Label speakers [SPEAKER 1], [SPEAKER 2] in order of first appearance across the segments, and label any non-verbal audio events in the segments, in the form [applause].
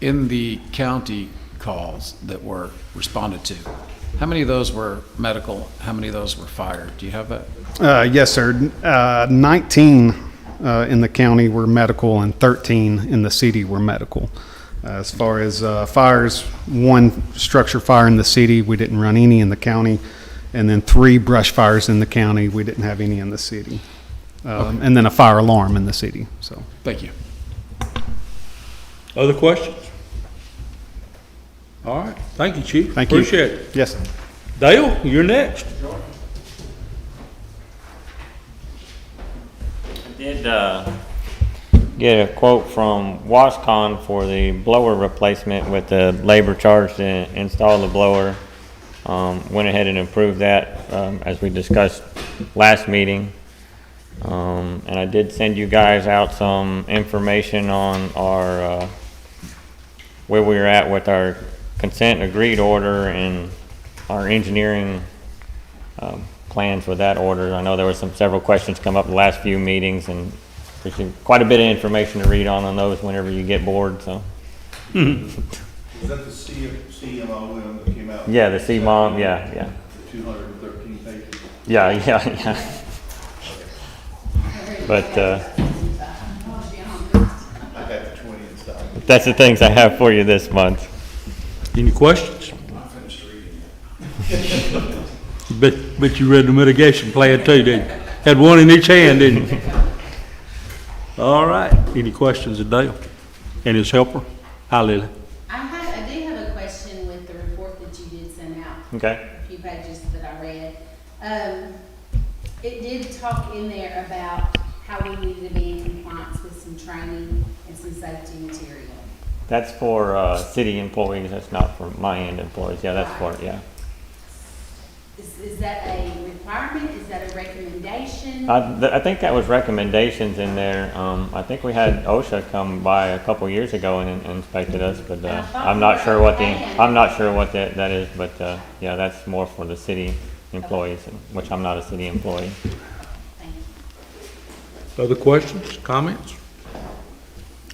[SPEAKER 1] in the county calls that were responded to, how many of those were medical? How many of those were fire? Do you have that?
[SPEAKER 2] Uh, yes, sir. Uh, 19 uh, in the county were medical and 13 in the city were medical. Uh, as far as uh, fires, one structure fire in the city, we didn't run any in the county, and then three brush fires in the county, we didn't have any in the city. Um, And then a fire alarm in the city, so.
[SPEAKER 1] Thank you.
[SPEAKER 3] Other questions? All right, thank you, Chief.
[SPEAKER 2] Thank you.
[SPEAKER 3] Appreciate it.
[SPEAKER 2] Yes.
[SPEAKER 3] Dale, you're next.
[SPEAKER 4] Did uh, get a quote from Wascon for the blower replacement with the labor charge to install the blower. Um, Went ahead and approved that um, as we discussed last meeting. Um, And I did send you guys out some information on our, uh, where we were at with our consent agreed order and our engineering um, plans with that order. I know there were some, several questions come up the last few meetings, and there's been quite a bit of information to read on on those whenever you get bored, so.
[SPEAKER 5] Is that the C- CMO one that came out?
[SPEAKER 4] Yeah, the CMOM, yeah, yeah,
[SPEAKER 5] Two hundred and thirteen pages.
[SPEAKER 4] yeah, [laughs] yeah, yeah. But, uh,
[SPEAKER 5] I got the twenty inside.
[SPEAKER 4] that's the things I have for you this month.
[SPEAKER 3] Any questions? [laughs] Bet, bet you read the mitigation plan too, didn't you? Had one in each hand, didn't you? [laughs] All right, any questions of Dale and his helper? Hi, Lily.
[SPEAKER 6] I had, I did have a question with the report that you did send out,
[SPEAKER 4] Okay.
[SPEAKER 6] a few pages that I read. Um, it did talk in there about how we needed to be in compliance with some training and some safety material.
[SPEAKER 4] That's for, uh, city employees, that's not for my end employees, yeah, that's for, yeah.
[SPEAKER 6] Is, is that a requirement? Is that a recommendation?
[SPEAKER 4] I, th- I think that was recommendations in there. Um, I think we had OSHA come by a couple years ago and and inspected us, but, uh, I'm not sure what the, I'm not sure what that, that is, but, uh, yeah, that's more for the city employees, which I'm not a city employee.
[SPEAKER 6] Thank you.
[SPEAKER 3] Other questions, comments?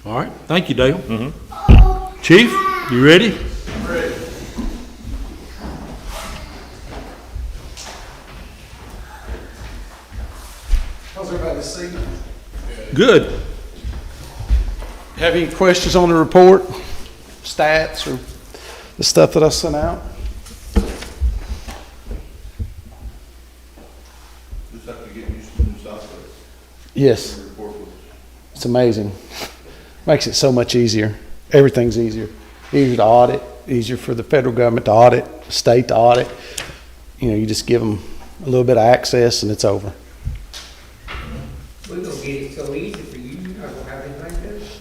[SPEAKER 3] All right, thank you, Dale. Chief, you ready?
[SPEAKER 7] How's everybody this evening?
[SPEAKER 3] Good.
[SPEAKER 7] Have any questions on the report, stats, or the stuff that I sent out?
[SPEAKER 5] Just have to get used to the new software.
[SPEAKER 7] Yes,
[SPEAKER 5] Report was
[SPEAKER 7] it's amazing. Makes it so much easier. Everything's easier. Easier to audit, easier for the federal government to audit, the state to audit. You know, you just give them a little bit of access and it's over.
[SPEAKER 8] We're gonna get it so easy for you, you're not gonna have anything like this.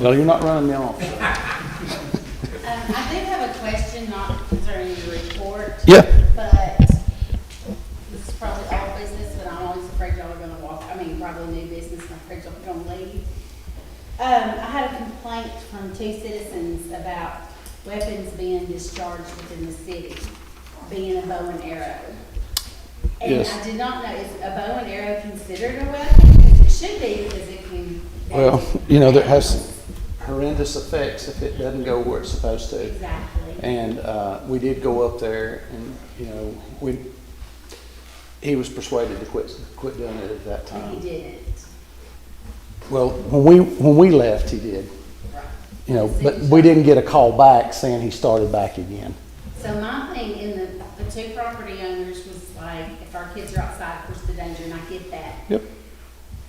[SPEAKER 7] Well, you're not running the office.
[SPEAKER 6] Um, I do have a question, not concerning the report.
[SPEAKER 7] Yeah.
[SPEAKER 6] But this is probably all business, but I'm always afraid y'all are gonna walk, I mean, probably new business, and I'm afraid y'all are gonna leave. Um, I had a complaint from two citizens about weapons being discharged within the city, being a bow and arrow. And
[SPEAKER 7] Yes.
[SPEAKER 6] I did not know, is a bow and arrow considered a weapon? It should be, because it can.
[SPEAKER 7] Well, you know, that has horrendous effects if it doesn't go where it's supposed to.
[SPEAKER 6] Exactly.
[SPEAKER 7] And uh, we did go up there, and you know, we he was persuaded to quit quit doing it at that
[SPEAKER 6] And
[SPEAKER 7] time.
[SPEAKER 6] he didn't.
[SPEAKER 7] Well, when we when we left, he did.
[SPEAKER 6] Right.
[SPEAKER 7] You know, but we didn't get a call back saying he started back again.
[SPEAKER 6] So my thing in the, the two property owners was like, if our kids are outside, of course the danger, and I get that.
[SPEAKER 7] Yep.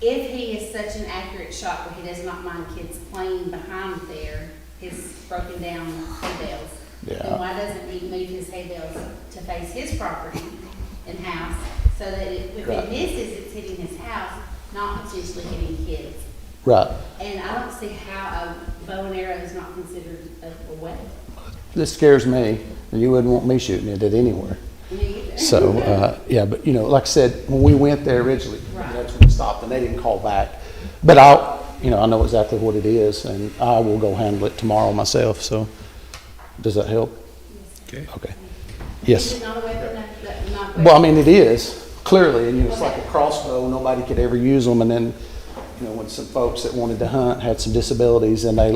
[SPEAKER 6] If he is such an accurate shot where he does not mind kids playing behind there, his broken down hay bales.
[SPEAKER 7] Yeah.
[SPEAKER 6] Then why doesn't he move his hay bales to face his property and house, so that it- if
[SPEAKER 7] Right.
[SPEAKER 6] it misses, it's hitting his house, not potentially hitting kids?
[SPEAKER 7] Right.
[SPEAKER 6] And I don't see how a bow and arrow is not considered a a weapon.
[SPEAKER 7] This scares me, and you wouldn't want me shooting it at anywhere.
[SPEAKER 6] Me either.
[SPEAKER 7] So uh, yeah, but you know, like I said, when we went there originally,
[SPEAKER 6] Right.
[SPEAKER 7] that's when we stopped, and they didn't call back. But I'll, you know, I know exactly what it is, and I will go handle it tomorrow myself. So, does that help?
[SPEAKER 3] Okay.
[SPEAKER 7] Okay.
[SPEAKER 6] Is
[SPEAKER 7] Yes.
[SPEAKER 6] it not a weapon? That- that- not weapon?
[SPEAKER 7] Well, I mean, it is clearly, and you know, it's like a crossbow. Nobody could ever use them, and then, you know, when some folks that wanted to hunt had some disabilities, and they